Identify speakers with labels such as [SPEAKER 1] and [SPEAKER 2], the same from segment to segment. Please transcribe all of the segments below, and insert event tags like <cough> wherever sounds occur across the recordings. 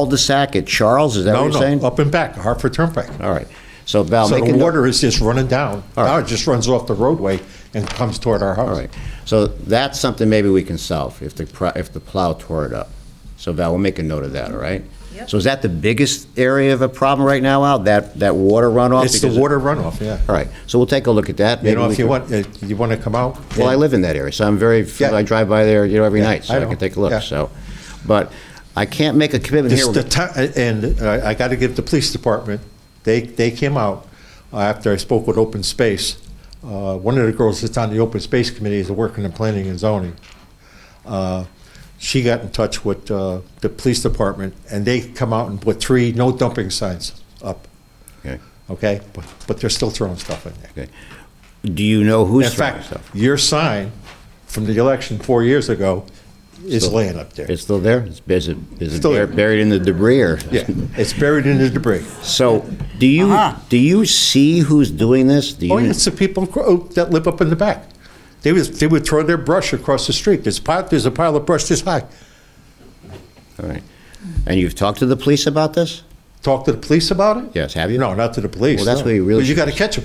[SPEAKER 1] cul-de-sac at Charles, is that what
[SPEAKER 2] No,
[SPEAKER 1] you're
[SPEAKER 2] no,
[SPEAKER 1] saying?
[SPEAKER 2] up and back, Hartford Turnpike.
[SPEAKER 1] All right, so Val,
[SPEAKER 2] So
[SPEAKER 1] make a
[SPEAKER 2] the
[SPEAKER 1] note.
[SPEAKER 2] water is just running down.
[SPEAKER 1] All right.
[SPEAKER 2] Now it just runs off the roadway and comes toward our
[SPEAKER 1] All
[SPEAKER 2] house.
[SPEAKER 1] right, so that's something maybe we can solve if the, pro- if the plow tore it up. So Val, we'll make a note of that, all right?
[SPEAKER 3] Yep.
[SPEAKER 1] So is that the biggest area of a problem right now, Al, that, that water runoff?
[SPEAKER 2] It's the
[SPEAKER 1] Because-
[SPEAKER 2] water runoff, yeah.
[SPEAKER 1] All right, so we'll take a look at that.
[SPEAKER 2] You
[SPEAKER 1] Maybe
[SPEAKER 2] know,
[SPEAKER 1] we
[SPEAKER 2] if you
[SPEAKER 1] can-
[SPEAKER 2] want, uh, you want to come out?
[SPEAKER 1] Well, I live in that area, so I'm very,
[SPEAKER 2] Yeah.
[SPEAKER 1] I drive by there, you know, every
[SPEAKER 2] Yeah,
[SPEAKER 1] night, so
[SPEAKER 2] I
[SPEAKER 1] I
[SPEAKER 2] know.
[SPEAKER 1] can take a look,
[SPEAKER 2] Yeah.
[SPEAKER 1] so. But I can't make a commitment
[SPEAKER 2] This
[SPEAKER 1] here.
[SPEAKER 2] is the ti- and uh, I got to give the police department, they, they came out uh, after I spoke with Open Space. Uh, One of the girls that's on the Open Space Committee is working in planning and zoning. Uh, She got in touch with uh, the police department, and they come out and put three no dumping signs up,
[SPEAKER 1] Okay,
[SPEAKER 2] okay? But but they're still throwing stuff in there.
[SPEAKER 1] okay. Do you know
[SPEAKER 2] In
[SPEAKER 1] who's throwing
[SPEAKER 2] fact,
[SPEAKER 1] stuff?
[SPEAKER 2] your sign from the election four years ago is laying up there.
[SPEAKER 1] It's still there? It's bus- is it
[SPEAKER 2] Still
[SPEAKER 1] bur-
[SPEAKER 2] there.
[SPEAKER 1] buried in the debris or?
[SPEAKER 2] Yeah, it's buried in the debris.
[SPEAKER 1] So, do you, do you see who's doing this? Do
[SPEAKER 2] Oh,
[SPEAKER 1] you-
[SPEAKER 2] yeah, it's the people cro- that live up in the back. They would, they would throw their brush across the street. There's pile, there's a pile of brush this high.
[SPEAKER 1] All right. And you've talked to the police about this?
[SPEAKER 2] Talk to the police about it?
[SPEAKER 1] Yes, have you?
[SPEAKER 2] No, not to the police.
[SPEAKER 1] Well, that's
[SPEAKER 2] no.
[SPEAKER 1] where you really
[SPEAKER 2] But you
[SPEAKER 1] should-
[SPEAKER 2] got to catch them.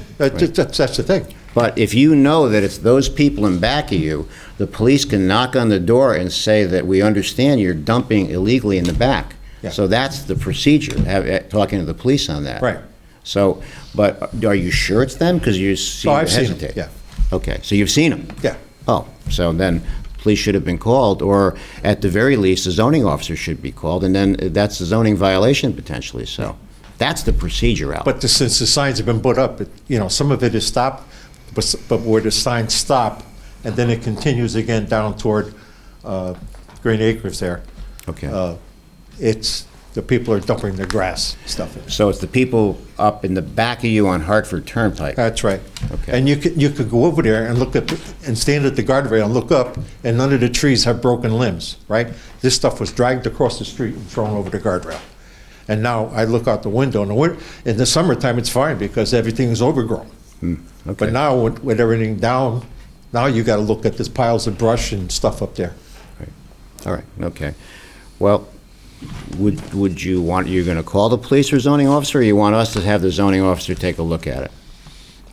[SPEAKER 2] That's, that's the thing.
[SPEAKER 1] But if you know that it's those people in back of you, the police can knock on the door and say that we understand you're dumping illegally in the back.
[SPEAKER 2] Yeah.
[SPEAKER 1] So that's the procedure, have, eh, talking to the police on that.
[SPEAKER 2] Right.
[SPEAKER 1] So, but are you sure it's them? Because you seem
[SPEAKER 2] Oh,
[SPEAKER 1] to
[SPEAKER 2] I've seen 'em,
[SPEAKER 1] hesitate.
[SPEAKER 2] yeah.
[SPEAKER 1] Okay, so you've seen them?
[SPEAKER 2] Yeah.
[SPEAKER 1] Oh, so then police should have been called, or at the very least, the zoning officer should be called, and then that's a zoning violation potentially, so. That's the procedure, Al.
[SPEAKER 2] But the- since the signs have been put up, it- you know, some of it is stopped, but s- but where the signs stop, and then it continues again down toward uh, Green Acres there.
[SPEAKER 1] Okay.
[SPEAKER 2] uh, It's, the people are dumping their grass stuff in.
[SPEAKER 1] So it's the people up in the back of you on Hartford Turnpike?
[SPEAKER 2] That's right.
[SPEAKER 1] Okay.
[SPEAKER 2] And you could, you could go over there and look at, and stand at the guardrail and look up, and none of the trees have broken limbs, right? This stuff was dragged across the street and thrown over the guardrail. And now I look out the window, and the win, in the summertime, it's fine because everything is overgrown.
[SPEAKER 1] Hmm, okay.
[SPEAKER 2] But now with, with everything down, now you gotta look at this piles of brush and stuff up there.
[SPEAKER 1] All right, okay. Well, would, would you want, you're going to call the police or zoning officer, or you want us to have the zoning officer take a look at it?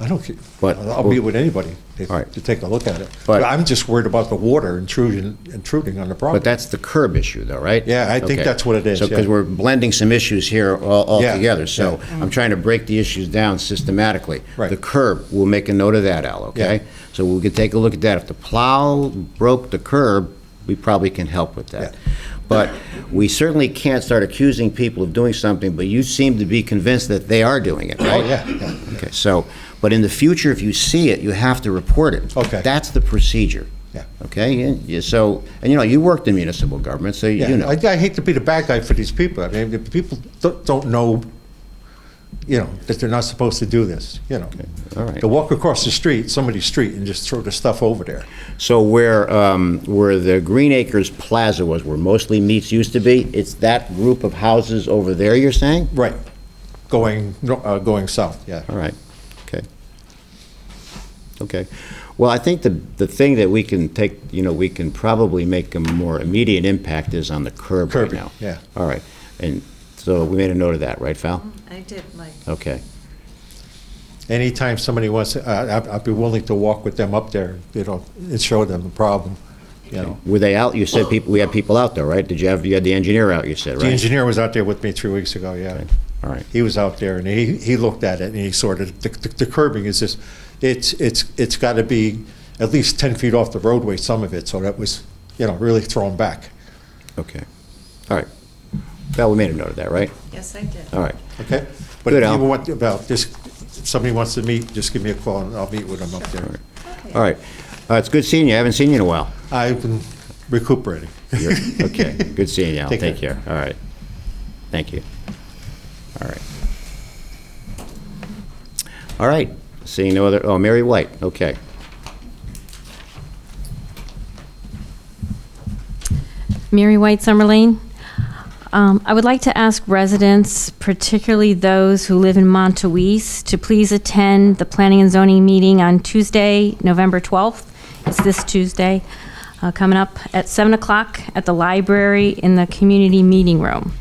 [SPEAKER 2] I don't care.
[SPEAKER 1] But-
[SPEAKER 2] I'll be with anybody to
[SPEAKER 1] All right.
[SPEAKER 2] to take a look at it.
[SPEAKER 1] But-
[SPEAKER 2] But I'm just worried about the water intrusion, intruding on the property.
[SPEAKER 1] But that's the curb issue, though, right?
[SPEAKER 2] Yeah, I think
[SPEAKER 1] Okay.
[SPEAKER 2] that's what it is,
[SPEAKER 1] So, because
[SPEAKER 2] yeah.
[SPEAKER 1] we're blending some issues here all all
[SPEAKER 2] Yeah,
[SPEAKER 1] together, so
[SPEAKER 2] yeah. Mm-hmm.
[SPEAKER 1] I'm trying to break the issues down systematically.
[SPEAKER 2] Right.
[SPEAKER 1] The curb, we'll make a note of that, Al, okay?
[SPEAKER 2] Yeah.
[SPEAKER 1] So we can take a look at that. If the plow broke the curb, we probably can help with that. But we certainly can't start accusing people of doing something, but you seem to be convinced that they are doing it, right?
[SPEAKER 2] Oh, yeah, yeah.
[SPEAKER 1] Okay, so, but in the future, if you see it, you have to report it.
[SPEAKER 2] Okay.
[SPEAKER 1] That's the procedure.
[SPEAKER 2] Yeah.
[SPEAKER 1] Okay, and you- so, and you know, you worked in municipal government, so you
[SPEAKER 2] Yeah, I,
[SPEAKER 1] know.
[SPEAKER 2] I hate to be the bad guy for these people. I mean, the people don't, don't know, you know, that they're not supposed to do this, you know.
[SPEAKER 1] all right.
[SPEAKER 2] They walk across the street, somebody's street, and just throw the stuff over there.
[SPEAKER 1] So where, um, where the Green Acres Plaza was, where mostly meats used to be, it's that group of houses over there, you're saying?
[SPEAKER 2] Right. Going, no- uh, going south, yeah.
[SPEAKER 1] All right, okay. Okay. Well, I think the, the thing that we can take, you know, we can probably make a more immediate impact is on the curb right
[SPEAKER 2] Curb,
[SPEAKER 1] now.
[SPEAKER 2] yeah.
[SPEAKER 1] All right, and so we made a note of that, right, Val?
[SPEAKER 3] I did, Mike.
[SPEAKER 1] Okay.
[SPEAKER 2] Anytime somebody wants, to- I, I'd- I'd be willing to walk with them up there, you know, and show them the problem, you know.
[SPEAKER 1] Were they out, you said people, we had people out though, right? Did you have, you had the engineer out, you said, right?
[SPEAKER 2] The engineer was out there with me three weeks ago, yeah.
[SPEAKER 1] All right.
[SPEAKER 2] He was out there and he, he looked at it and he sorted, the, the curbing is just, it's, it's, it's gotta be at least ten feet off the roadway, some of it, so that was, you know, really thrown back,
[SPEAKER 1] Okay. All right. Val, we made a note of that, right?
[SPEAKER 3] Yes, I did.
[SPEAKER 1] All right.
[SPEAKER 2] okay? But
[SPEAKER 1] Good,
[SPEAKER 2] if
[SPEAKER 1] Al.
[SPEAKER 2] you want, about this, if somebody wants to meet, just give me a call and I'll meet with them up there.
[SPEAKER 3] Okay.
[SPEAKER 1] All right. Uh, It's good seeing you. I haven't seen you in a while.
[SPEAKER 2] I've been recuperating. <laughs>
[SPEAKER 1] You're- Okay, good seeing you. Al.
[SPEAKER 2] Take
[SPEAKER 1] Take care. All right. Thank you. All right. All right. Seeing no other, oh, Mary White, okay.
[SPEAKER 4] Mary White Summerlin. Um, I would like to ask residents, particularly those who live in Montouise, to please attend the Planning and Zoning meeting on Tuesday, November 12th. It's this Tuesday, uh, coming up at 7 o'clock at the library in the Community Meeting Room.